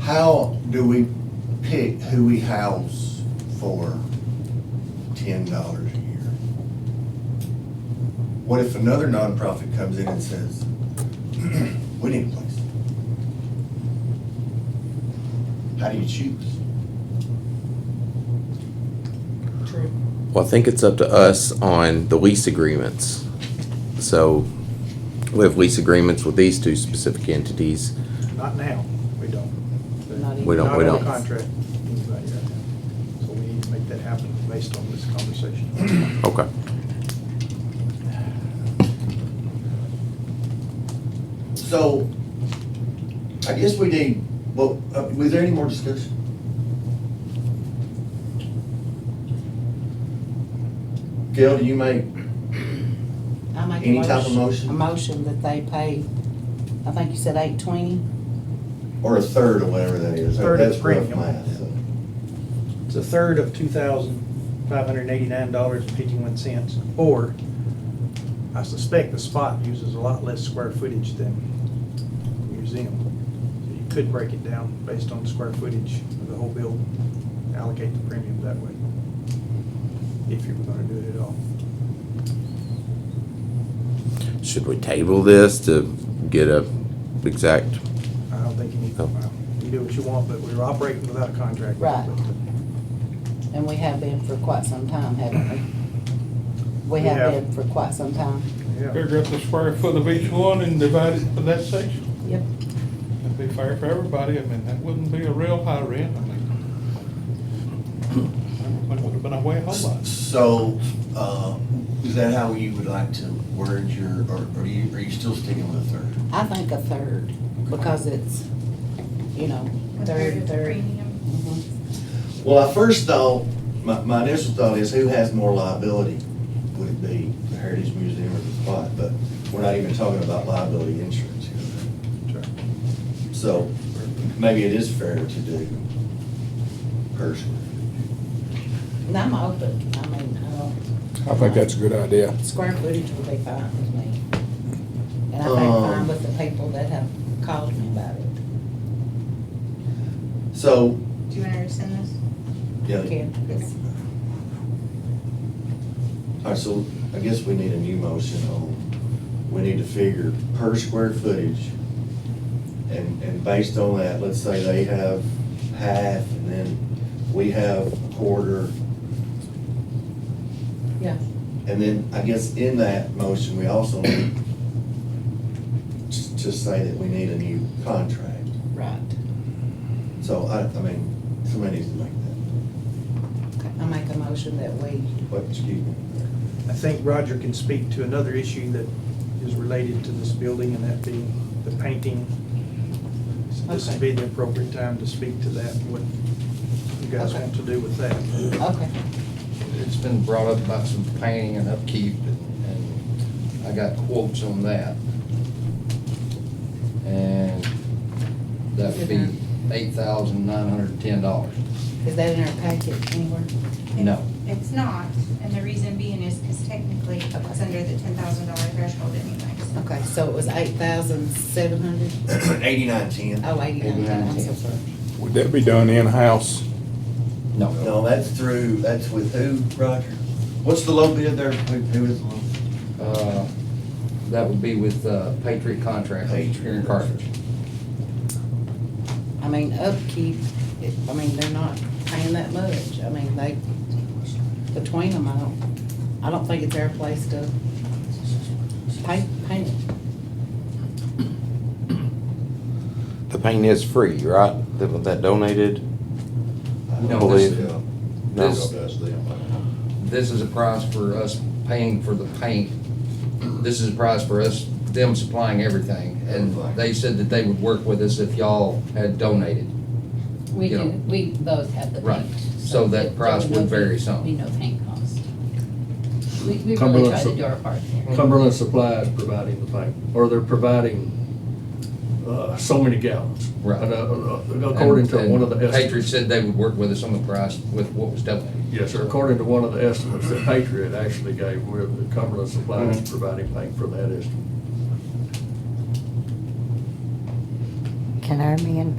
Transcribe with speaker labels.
Speaker 1: How do we pick who we house for ten dollars a year? What if another nonprofit comes in and says, we need a place? How do you choose?
Speaker 2: True.
Speaker 3: Well, I think it's up to us on the lease agreements. So we have lease agreements with these two specific entities.
Speaker 4: Not now, we don't.
Speaker 2: Not
Speaker 3: We don't- we
Speaker 4: Not on
Speaker 3: don't.
Speaker 4: contract, not yet. So we need to make that happen based on this conversation.
Speaker 3: Okay.
Speaker 1: So, I guess we need, well, uh, was there any more discussion? Gail, do you make,
Speaker 2: I make a
Speaker 1: Any type of
Speaker 2: A
Speaker 1: motion?
Speaker 2: motion that they pay, I think you said eight twenty,
Speaker 1: or a third or whatever that is?
Speaker 4: Third of
Speaker 1: That's
Speaker 4: the
Speaker 1: rough
Speaker 4: premium.
Speaker 1: math, so.
Speaker 4: It's a third of two thousand five hundred and eighty-nine dollars and fifty-one cents, or I suspect the spot uses a lot less square footage than the museum. So you could break it down based on the square footage of the whole building, allocate the premium that way, if you were gonna do it at all.
Speaker 3: Should we table this to get a exact?
Speaker 4: I don't think you need,
Speaker 3: Oh.
Speaker 4: well, you do what you want, but we're operating without a contract.
Speaker 2: Right. and we have been for quite some time, haven't we? We
Speaker 4: We
Speaker 2: have
Speaker 4: have.
Speaker 2: been for quite some time.
Speaker 4: Yeah,
Speaker 5: Figure up the square foot of each one and divide it for that section.
Speaker 2: Yep.
Speaker 5: That'd be fair for everybody. I mean, that wouldn't be a real high rent, I mean. That would have been a way whole lot.
Speaker 1: So, uh, is that how you would like to word your, or or are you, are you still sticking with a third?
Speaker 2: I think a third, because it's, you know,
Speaker 6: A third
Speaker 2: third,
Speaker 6: of the
Speaker 2: third.
Speaker 6: premium.
Speaker 2: Mhm.
Speaker 1: Well, I first thought, my, my initial thought is who has more liability? Would it be the Heritage Museum or the spot? But we're not even talking about liability insurance here.
Speaker 4: sure.
Speaker 1: So maybe it is fair to do personally.
Speaker 2: And I'm open, I mean, I don't,
Speaker 7: I think that's a good idea.
Speaker 2: square footage would be fine with me. And I think
Speaker 1: Um.
Speaker 2: fine with the people that have called me about it.
Speaker 1: So,
Speaker 6: Do you want to rescind this?
Speaker 1: yeah, all
Speaker 2: Ken, yes.
Speaker 1: right, so I guess we need a new motion on, we need to figure per square footage. And, and based on that, let's say they have half and then we have a quarter.
Speaker 2: Yeah.
Speaker 1: And then I guess in that motion, we also need to to say that we need a new contract.
Speaker 2: Right.
Speaker 1: So I, I mean, somebody needs to make that,
Speaker 2: I make a motion that we,
Speaker 1: what, excuse me.
Speaker 4: I think Roger can speak to another issue that is related to this building, and that being the painting. So This would be the appropriate time to speak to that, what you guys
Speaker 2: Okay.
Speaker 4: want to do with that.
Speaker 2: okay.
Speaker 8: It's been brought up about some painting and upkeep, and and I got quotes on that. And that would be eight thousand nine hundred and ten dollars.
Speaker 2: Is that in our packet anywhere?
Speaker 8: No.
Speaker 6: It's not, and the reason being is because technically it's under the ten thousand dollar threshold anyway. so.
Speaker 2: Okay, so it was eight thousand seven hundred?
Speaker 1: Eighty-nine ten.
Speaker 2: Oh, eighty-nine, I'm so sorry.
Speaker 7: Would that be done in-house?
Speaker 8: No.
Speaker 1: No, that's through, that's with who, Roger? What's the low bid there? Who, who is the low?
Speaker 8: Uh, That would be with uh, Patriot Contract here in Carthage.
Speaker 2: I mean, upkeep, it- I mean, they're not paying that much. I mean, they, between them, I don't, I don't think it's their place to pay, paint it.
Speaker 3: The paint is free, right? That, that donated?
Speaker 8: No, this-
Speaker 3: Believe- No.
Speaker 8: This, this is a price for us paying for the paint. This is a price for us, them supplying everything. And they said that they would work with us if y'all had donated.
Speaker 9: We
Speaker 8: you
Speaker 9: do,
Speaker 8: know.
Speaker 9: we both have the
Speaker 8: Right.
Speaker 9: paint.
Speaker 8: So that
Speaker 9: there
Speaker 8: price
Speaker 9: would
Speaker 8: would
Speaker 9: be-
Speaker 8: vary some.
Speaker 9: Be no paint cost. We, we really
Speaker 10: Cumberland
Speaker 9: try to
Speaker 10: Sup-
Speaker 9: do our part there.
Speaker 10: Cumberland Supply is providing the paint, or they're providing uh, so many gallons.
Speaker 8: Right.
Speaker 10: And, uh, According to
Speaker 8: And-
Speaker 10: one of the
Speaker 8: and Patriot
Speaker 10: estimates.
Speaker 8: said they would work with us on the price with what was donated.
Speaker 10: Yes, sir, according to one of the estimates that Patriot actually gave, where the Cumberland Supply is
Speaker 8: Mm-hmm.
Speaker 10: providing paint for that estimate.
Speaker 11: Can our men